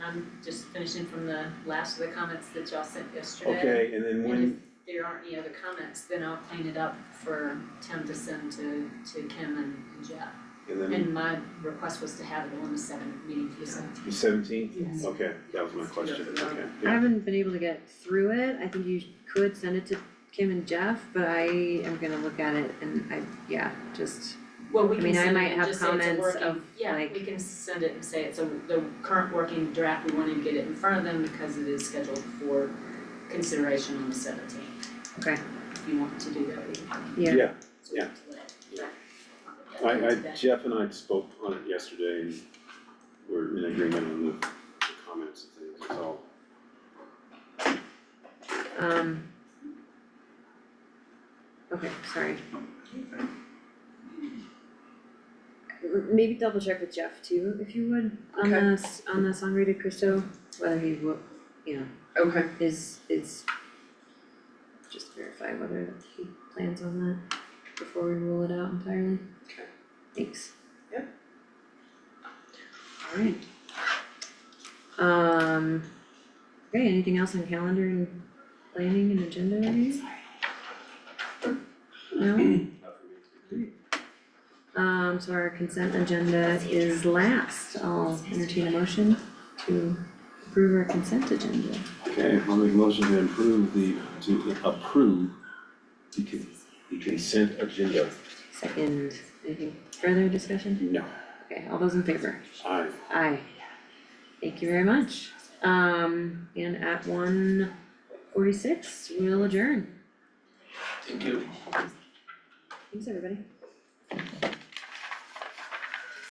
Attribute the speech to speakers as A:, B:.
A: I'm just finishing from the last of the comments that y'all sent yesterday.
B: Okay, and then
A: And if
B: when,
A: there aren't any other comments, then I'll clean it up for Tim to send to to Kim and and Jeff.
B: and then
A: And my request was to have it on the seventh meeting for seventeen.
B: the seventeenth?
A: Yes.
B: Okay, that was my question, okay,
C: I
B: yeah.
C: haven't been able to get through it, I think you could send it to Kim and Jeff, but I am gonna look at it and I, yeah, just,
A: Well, we
C: I
A: can
C: mean, I
A: send
C: might
A: it and
C: have
A: just say it's a
C: comments
A: working,
C: of,
A: yeah,
C: like-
A: we can send it and say it's a, the current working draft, we wanted to get it in front of them because it is scheduled for consideration on the seventeenth.
C: Okay.
A: If you want to do that, we can.
B: Yeah,
C: yeah.
A: so we have to let-
B: Yeah.
A: Yeah,
B: I, I,
A: do that.
B: Jeff and I spoke on it yesterday, and we're in agreement on the the comments and things, so.
C: Um. Okay, sorry. M- Maybe double check with Jeff too, if you would, on
D: Okay.
C: the, s- on the Sangre de Cristo, whether he will, you know,
D: Okay,
C: is, is. Just verify whether he plans on that before we rule it out entirely.
D: Okay.
C: Thanks.
D: Yep.
C: Alright. Um, okay, anything else on calendar and planning and agenda review? No, um, so our consent agenda is last, I'll entertain a motion to approve our consent agenda.
B: Okay, I'll make a motion to improve the, to approve the con- the consent agenda.
C: Second, anything further discussion?
B: No,
C: Okay, all those in favor?
B: I,
C: Aye. Thank you very much. Um, and at one forty-six, we'll adjourn.
B: thank you.
C: Thanks, everybody.